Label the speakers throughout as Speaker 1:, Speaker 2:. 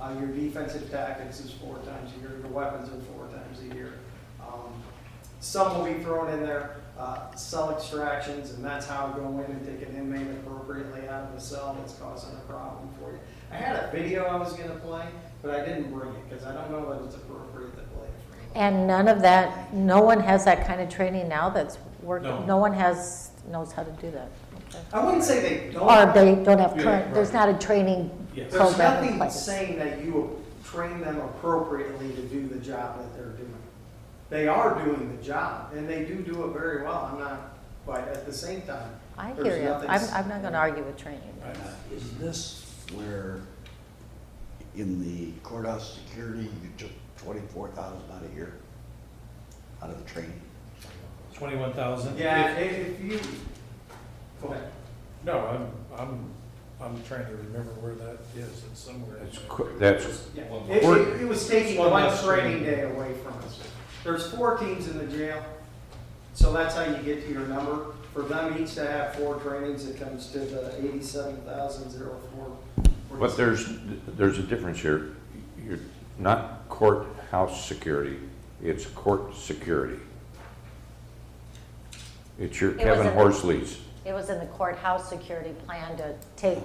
Speaker 1: Uh, Your defensive tactics is four times a year, your weapons are four times a year. Um, Some will be thrown in there, uh, cell extractions, and that's how to go in and take an inmate appropriately out of a cell that's causing a problem for you. I had a video I was gonna play, but I didn't bring it, because I don't know that it's appropriate to play it.
Speaker 2: And none of that, no one has that kind of training now that's
Speaker 3: No.
Speaker 2: working, no one has, knows how to do that. Okay.
Speaker 1: I wouldn't say they don't.
Speaker 2: Or they don't have
Speaker 3: Yeah,
Speaker 2: current, there's not
Speaker 3: right.
Speaker 2: a training
Speaker 3: Yes.
Speaker 1: There's
Speaker 2: program in
Speaker 1: nothing
Speaker 2: place.
Speaker 1: saying that you train them appropriately to do the job that they're doing. They are doing the job, and they do do it very well, I'm not, but at the same time,
Speaker 2: I
Speaker 1: there's
Speaker 2: hear you,
Speaker 1: nothing
Speaker 2: I'm,
Speaker 1: s-
Speaker 2: I'm not gonna argue with training.
Speaker 3: Right.
Speaker 4: Is this where, in the courthouse security, you took twenty-four thousand out of here? Out of the training?
Speaker 3: Twenty-one thousand?
Speaker 1: Yeah, if, if you, go ahead.
Speaker 3: No, I'm, I'm, I'm trying to remember where that is, it's somewhere. in
Speaker 5: That's,
Speaker 3: there.
Speaker 5: qu- that's,
Speaker 1: Yeah,
Speaker 3: One
Speaker 1: it,
Speaker 5: more.
Speaker 1: it- it was taking
Speaker 3: One
Speaker 1: one
Speaker 3: less
Speaker 1: training
Speaker 3: training.
Speaker 1: day away from us. There's four teams in the jail, so that's how you get to your number. For them each to have four trainings, it comes to the eighty-seven thousand zero four.
Speaker 5: but there's, there's a difference here. You're not courthouse security, it's court security. It's your
Speaker 2: It was
Speaker 5: Kevin
Speaker 2: in-
Speaker 5: Horsley's.
Speaker 2: It was in the courthouse security plan to take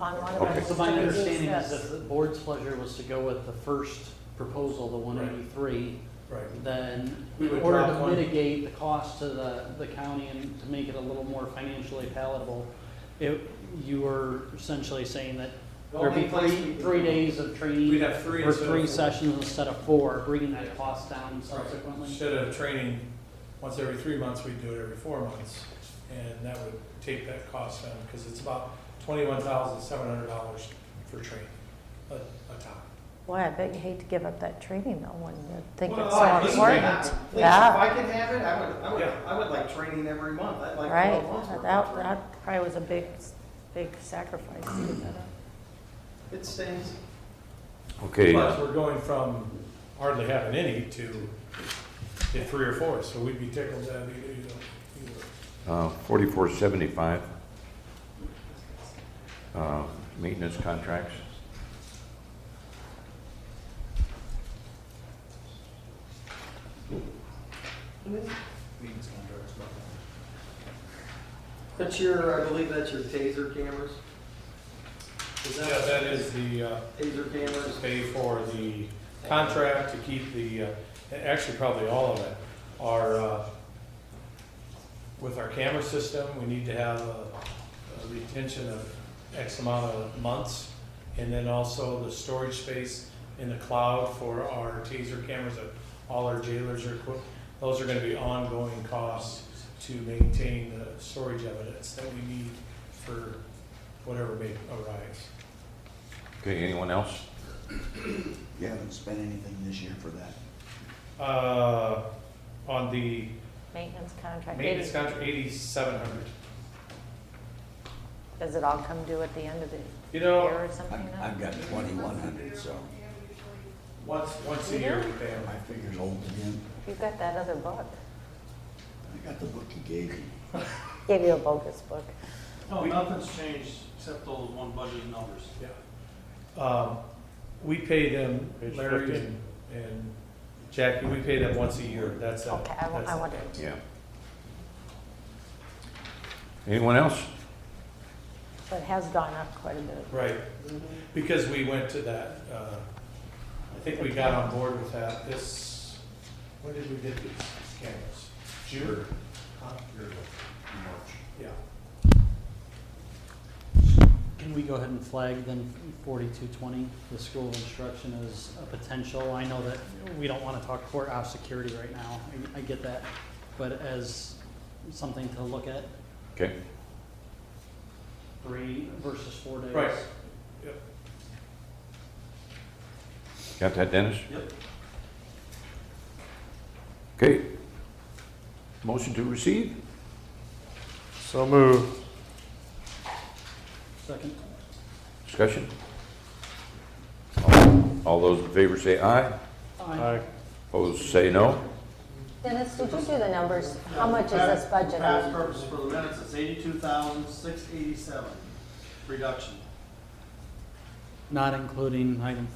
Speaker 2: on one of our.
Speaker 5: Okay.
Speaker 6: So my
Speaker 2: students
Speaker 6: understanding is
Speaker 2: this.
Speaker 6: if the board's pleasure was to go with the first proposal, the one eighty-three,
Speaker 3: Right.
Speaker 6: then
Speaker 3: We
Speaker 6: in
Speaker 3: would
Speaker 6: order
Speaker 3: drop
Speaker 6: to
Speaker 3: one.
Speaker 6: mitigate the cost to the, the county and to make it a little more financially palatable, it, you were essentially saying that
Speaker 1: The
Speaker 6: there'd be
Speaker 1: only place we
Speaker 6: three,
Speaker 1: could-
Speaker 6: three days of
Speaker 3: We'd
Speaker 6: training
Speaker 3: have three
Speaker 6: or
Speaker 3: instead of
Speaker 6: three
Speaker 3: four.
Speaker 6: sessions instead of four, bringing that cost down
Speaker 3: Right.
Speaker 6: subsequently.
Speaker 3: Instead of training once every three months, we'd do it every four months, and that would take that cost down, because it's about twenty-one thousand seven hundred dollars for training, a, a top.
Speaker 2: Boy, I bet you hate to give up that training though, when you think
Speaker 1: Well,
Speaker 2: it's
Speaker 1: I
Speaker 2: so
Speaker 1: think
Speaker 2: important.
Speaker 1: that- please, If
Speaker 2: Yeah,
Speaker 1: I could have it, I would, I would,
Speaker 3: Yeah.
Speaker 1: I would like training every month. I'd like
Speaker 2: right,
Speaker 1: twelve months worth of
Speaker 2: that,
Speaker 1: training.
Speaker 2: that probably was a big, big sacrifice to give that up.
Speaker 1: It stings.
Speaker 5: Okay,
Speaker 3: But we're going from hardly having any to get three or four, so we'd be tickled to have either, either.
Speaker 5: uh, forty-four seventy-five. Uh, maintenance contracts.
Speaker 1: That's your, I believe that's your taser cameras. Is
Speaker 3: Yeah, that is the, uh,
Speaker 1: Taser cameras.
Speaker 3: pay for the contract to keep the, uh, actually probably all of it, our, uh, with our camera system, we need to have a a retention of X amount of months, and then also the storage space in the cloud for our taser cameras that all our jailers are equipped. Those are gonna be ongoing costs to maintain the storage evidence that we need for whatever may arise.
Speaker 5: Okay, anyone else?
Speaker 4: You haven't spent anything this year for that?
Speaker 3: Uh, on the
Speaker 2: Maintenance contract,
Speaker 3: maintenance
Speaker 2: It-
Speaker 3: contract, eighty-seven hundred.
Speaker 2: does it all come due at the end of the
Speaker 3: You
Speaker 2: year
Speaker 3: know,
Speaker 2: or something?
Speaker 4: I've, I've got twenty-one hundred, so
Speaker 3: once, once a year we pay them.
Speaker 4: my figure's old again.
Speaker 2: You've got that other book.
Speaker 4: I got the book you gave me.
Speaker 2: Gave you a bogus book.
Speaker 7: No,
Speaker 3: We-
Speaker 7: nothing's changed except those one budget numbers.
Speaker 3: Yeah. Um, we pay them,
Speaker 5: Page
Speaker 3: Larry
Speaker 5: 15.
Speaker 3: and, and Jackie, we pay them once a year, that's it.
Speaker 2: Okay, I, wa-
Speaker 3: That's
Speaker 2: I
Speaker 3: it.
Speaker 2: wonder.
Speaker 5: Yeah. Anyone else?
Speaker 2: So it has gone up quite a bit.
Speaker 3: Right, because we went to that, uh, I think we got on board with that this, when did we get these cameras? June? Huh? Yeah.
Speaker 6: Can we go ahead and flag then forty-two twenty, the school of instruction as a potential? I know that we don't want to talk courthouse security right now, I, I get that, but as something to look at,
Speaker 5: Okay,
Speaker 6: three versus four days.
Speaker 3: Right.
Speaker 5: got that, Dennis?
Speaker 7: Yep.
Speaker 5: Okay. Motion to receive?
Speaker 3: So move.
Speaker 6: Second.
Speaker 5: Discussion? All- All those in favor say aye, opposed say no.
Speaker 2: Dennis, did you do the numbers? How much is this budget?
Speaker 7: Past purpose for the minutes, it's eighty-two thousand, six eighty-seven, reduction.
Speaker 6: Not including item